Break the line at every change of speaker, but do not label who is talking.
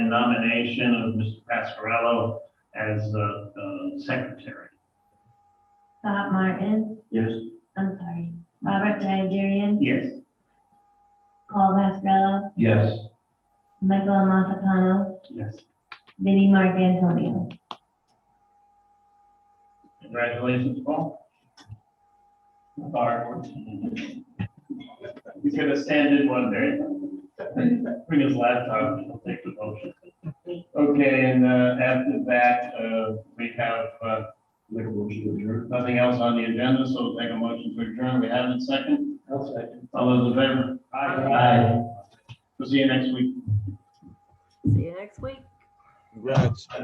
nomination of Mr. Pascarello as uh, uh, secretary.
Bob Martin,
Yes.
Uh, I'm sorry, Robert Nigerian,
Yes.
Paul Vascarello,
Yes.
Michael Amatapano,
Yes.
Vinnie Mark Antonio.
Congratulations, Paul. Our- He's gonna stand in one day. Bring his laptop, and he'll take the motion. Okay, and uh, after that, uh, we have, uh,
Make a motion to adjourn.
nothing else on the agenda, so we'll take a motion to adjourn. We have it second.
I'll second.
All those in favor? We'll see you next week.
See you next week.
Congrats.